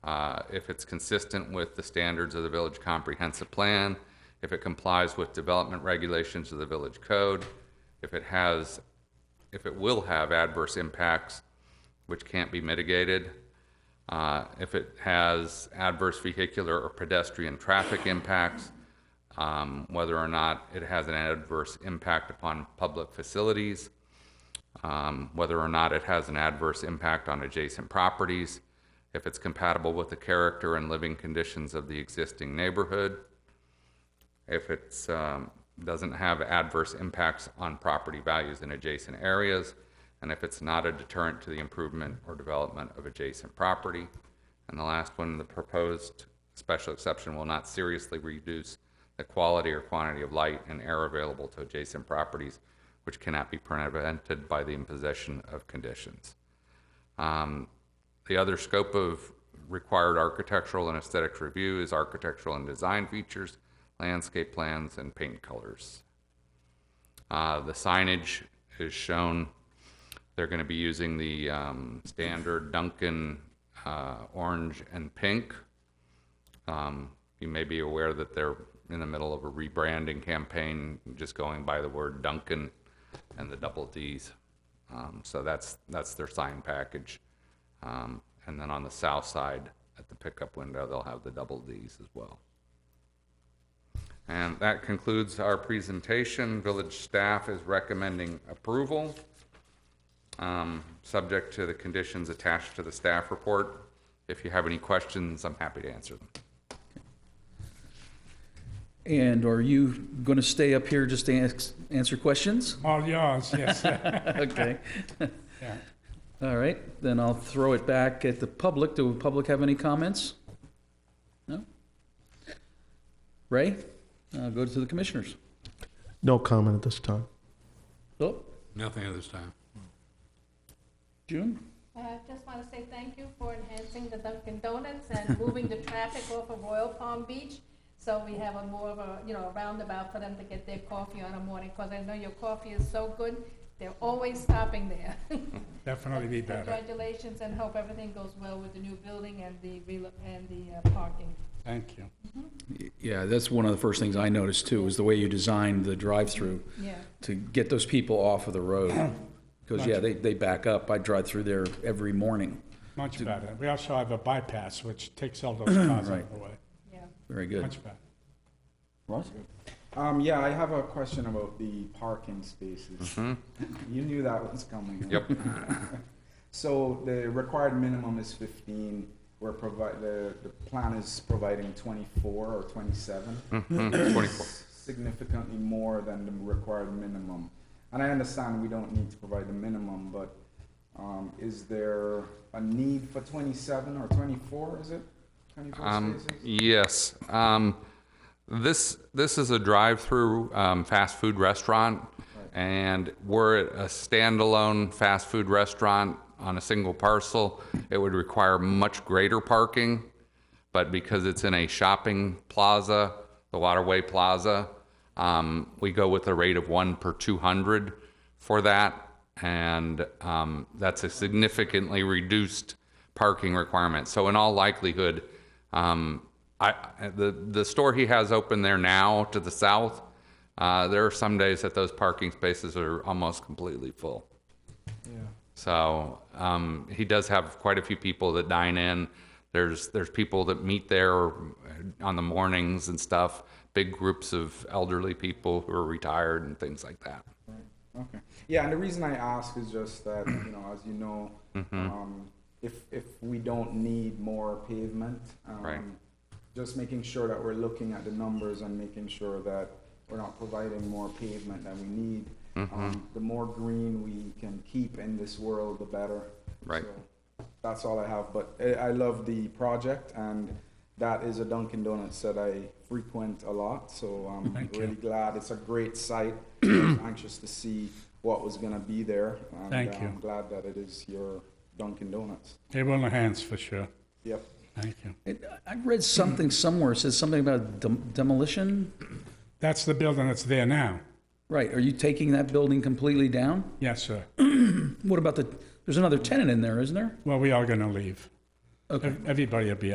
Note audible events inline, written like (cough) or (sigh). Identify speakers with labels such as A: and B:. A: uh, if it's consistent with the standards of the village comprehensive plan, if it complies with development regulations of the village code, if it has, if it will have adverse impacts which can't be mitigated, uh, if it has adverse vehicular or pedestrian traffic impacts, um, whether or not it has an adverse impact upon public facilities, um, whether or not it has an adverse impact on adjacent properties, if it's compatible with the character and living conditions of the existing neighborhood, if it's, um, doesn't have adverse impacts on property values in adjacent areas, and if it's not a deterrent to the improvement or development of adjacent property. And the last one, the proposed special exception will not seriously reduce the quality or quantity of light and air available to adjacent properties, which cannot be prevented by the imposition of conditions. Um, The other scope of required architectural and aesthetics review is architectural and design features, landscape plans, and paint colors. Uh, The signage is shown, they're going to be using the um, standard Duncan uh, orange and pink. Um, You may be aware that they're in the middle of a rebranding campaign, just going by the word Duncan and the double Ds. Um, So that's, that's their sign package. Um, And then on the south side, at the pickup window, they'll have the double Ds as well. And that concludes our presentation. Village staff is recommending approval, um, subject to the conditions attached to the staff report. If you have any questions, I'm happy to answer them.
B: And are you going to stay up here just to ans- answer questions?
C: All yours, yes. (laughs)
B: Okay.
C: Yeah.
B: All right, then I'll throw it back at the public. Do the public have any comments? No? Ray, I'll go to the commissioners.
D: No comment at this time.
B: Philip,
E: Nothing at this time.
B: June?
F: Uh, I just want to say thank you for enhancing the Dunkin' Donuts and moving the traffic off of Royal Palm Beach, so we have a more of a, you know, a roundabout for them to get their coffee on a morning, because I know your coffee is so good, they're always stopping there. (laughs)
C: Definitely be better.
F: Congratulations, and hope everything goes well with the new building and the, relo- and the uh, parking.
C: Thank you.
B: Yeah, that's one of the first things I noticed too, is the way you designed the drive-through
F: Yeah,
B: to get those people off of the road. Because, yeah, they, they back up. I drive through there every morning.
C: Much better. We also have a bypass, which takes
B: (clears throat)
C: all those cars out of the way.
F: yeah.
B: Very good.
C: Much better.
B: Ross?
G: Um, yeah, I have a question about the parking spaces. (laughs) You knew that was coming.
A: Mm-hmm. Yep.
G: So the required minimum is fifteen, we're provide, the, the plan is providing twenty-four or 27
A: Mhm, 24.
G: Significantly more than the required minimum. And I understand we don't need to provide the minimum, but, um, is there a need for twenty-seven or twenty-four, is it? Twenty-four
A: Um,
G: spaces?
A: Yes. Um, This, this is a drive-through um, fast food restaurant, and were it a standalone fast food restaurant on a single parcel, it would require much greater parking. But because it's in a shopping plaza, the Waterway Plaza, um, we go with a rate of one per 200 for that, and um, that's a significantly reduced parking requirement. So in all likelihood, um, I, the, the store he has open there now to the south, uh, there are some days that those parking spaces are almost completely full. So um, he does have quite a few people that dine in. There's there's people that meet there on the mornings and stuff. Big groups of elderly people who are retired and things like that.
G: Okay. Yeah, and the reason I ask is just that, you know, as you know,
A: Mm-hmm.
G: um, if, if we don't need more pavement,
A: Right.
G: um, just making sure that we're looking at the numbers and making sure that we're not providing more pavement than we need.
A: Mm-hmm.
G: Um, the more green we can keep in this world, the better.
A: Right.
G: So That's all I have, but I, I love the project and that is a Dunkin' Donuts that I frequent a lot, so um, I'm
C: Thank you.
G: really glad. It's a great
C: (clears throat)
G: site. I'm Anxious to see what was gonna be there. and,
C: Thank
G: uh,
C: you.
G: I'm glad that it is your Dunkin' Donuts.
C: They will enhance for sure.
G: Yep.
C: Thank you.
B: It- I read something somewhere, it says something about dem- demolition?
C: That's the building that's there now.
B: Right, are you taking that building completely down?
C: Yes, sir.
B: What about the, there's another tenant in there, isn't there?
C: Well, we are going to leave.
B: Okay.
C: Ev- Everybody will be